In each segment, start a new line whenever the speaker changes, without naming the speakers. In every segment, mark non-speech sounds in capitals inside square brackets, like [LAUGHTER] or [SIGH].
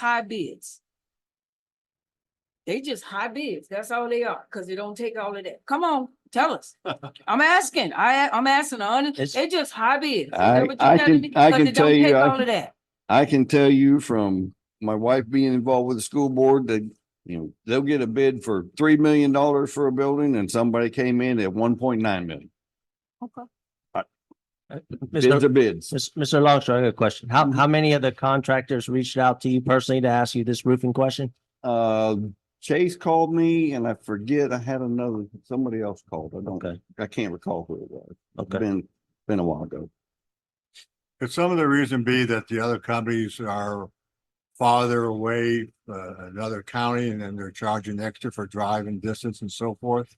high bids. They just high bids, that's all they are, cause they don't take all of that. Come on, tell
[LAUGHS]
us. I'm asking, I, I'm asking, hon-
It's-
they just high bids. Is that
I-
what you're
I
telling
can-
me?
I
'Cause
can
they
tell
don't
you,
take
I
all
can-
of that.
I can tell you from my wife being involved with the school board that, you know, they'll get a bid for three million dollars for a building and somebody came in at one point nine million.
Okay.
Bids are
Mr.
bids.
Mis- Mr. Longstreth, I got a question. How, how many of the contractors reached out to you personally to ask you this roofing question?
Uh, Chase called me and I forget, I had another, somebody else called. I don't,
Okay,
I can't recall who it was. It's
okay.
Been, been a while ago.
Could some of the reason be that the other companies are farther away, uh, another county, and then they're charging extra for driving distance and so forth?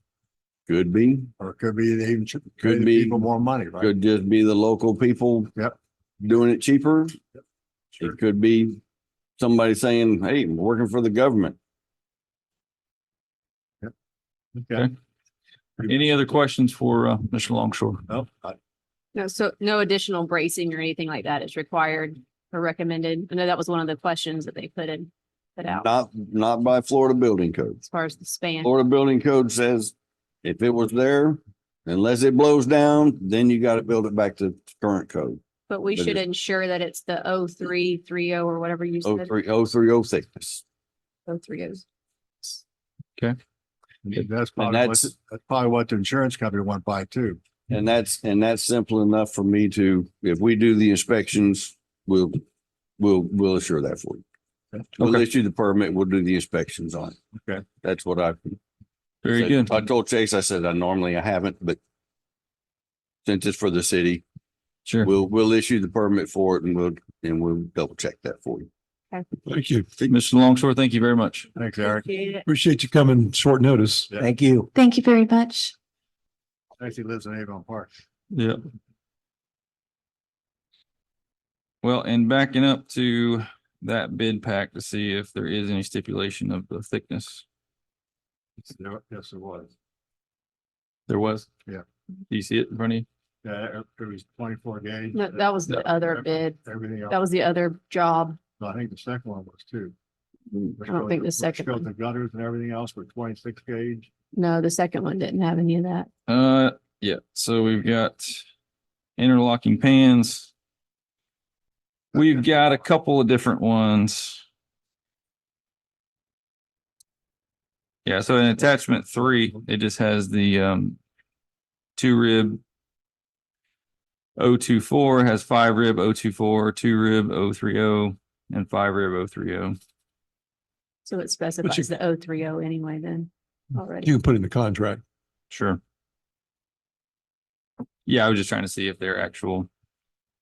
Could be,
Or it could be they even ch- pay the
be.
people more money, right?
could just be the local people.
Yep.
Doing it cheaper.
Sure.
It could be somebody saying, hey, I'm working for the government.
Okay. Any other questions for uh, Mr. Longshore?
No, I-
No, so no additional bracing or anything like that is required or recommended. I know that was one of the questions that they put in, put out
Not, not by Florida building code.
as far as the span.
Florida building code says if it was there, unless it blows down, then you gotta build it back to current code,
But we
but
should
it-
ensure that it's the O three three O or whatever you
oh
said,
three, oh three, oh thickness.
O three O's.
That's probably what,
that's-
that's probably what the insurance company went by too.
And that's, and that's simple enough for me to, if we do the inspections, we'll, we'll, we'll assure that for you. We'll
Okay.
issue the permit, we'll do the inspections on it.
Okay.
That's what I.
Very
said.
good.
I told Chase, I said, I normally I haven't, but since it's for the city,
Sure.
we'll, we'll issue the permit for it and we'll, and we'll double check that for you.
Thank you.
Mr. Longshore, thank you very much.
Thanks, Eric.
Appreciate you coming short notice.
Yeah.
Thank you.
Thank you very much.
Actually lives in Avon Park.
Yeah. Well, and backing up to that bid pack to see if there is any stipulation of the thickness.
Yes, it was.
There was?
Yeah.
Do you see it in front of you?
Yeah, it was twenty-four gauge.
No, that was the other bid.
Everything
That
else.
was the other job.
I think the second one was too.
Mm, I don't think the second
Built
one.
the gutters and everything else were twenty-six gauge.
No, the second one didn't have any of that.
Uh, yeah, so we've got interlocking pans. We've got a couple of different ones. Yeah, so in attachment three, it just has the um two rib. O two four has five rib O two four, two rib O three O, and five rib O three O.
So it specifies the O three O anyway then already.
You can put it in the contract.
Sure. Yeah, I was just trying to see if their actual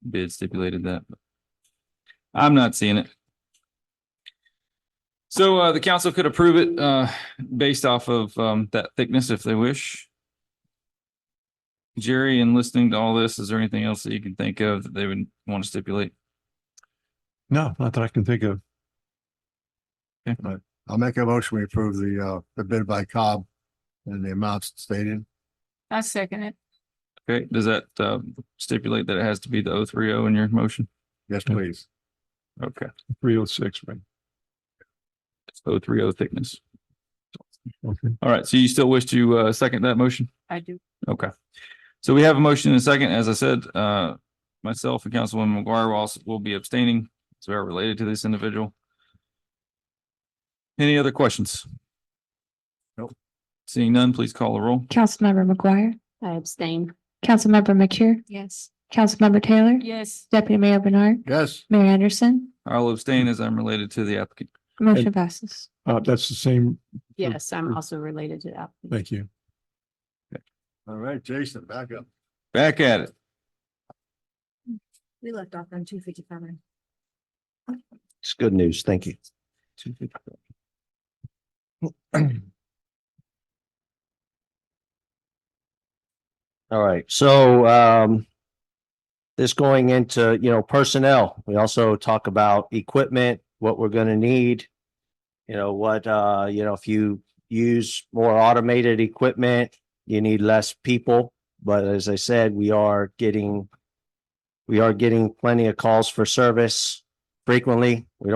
bid stipulated that. but I'm not seeing it. So uh, the council could approve it uh, based off of um, that thickness if they wish. Jerry, in listening to all this, is there anything else that you can think of that they would want to stipulate?
No, not that I can think of.
I'll make a motion, we approve the, uh, the bid by Cobb and the amounts stated.
I second it.
Okay, does that uh, stipulate that it has to be the O three O in your motion?
Yes, please.
Okay,
Three oh six, right?
it's O three O thickness.
Okay.
All right, so you still wish to uh, second that motion?
I do.
Okay. So we have a motion and a second. As I said, uh, myself and Councilwoman McGuire will also will be abstaining. So we are related to this individual. Any other questions? Nope. Seeing none, please call the roll.
Councilmember McGuire,
I abstain.
Councilmember McCure,
Yes.
Councilmember Taylor,
Yes,
Deputy Mayor Bernard,
Yes,
Mayor Anderson,
I'll abstain as I'm related to the applicant.
motion passes.
Uh, that's the same.
Yes, I'm also related to that.
Thank you.
all right, Jason, back up.
Back at it.
we left off on two fifty-five.
It's good news. Thank you. All right, so um. This going into, you know, personnel, we also talk about equipment, what we're gonna need. You know, what uh, you know, if you use more automated equipment, you need less people. But as I said, we are getting. We are getting plenty of calls for service frequently. We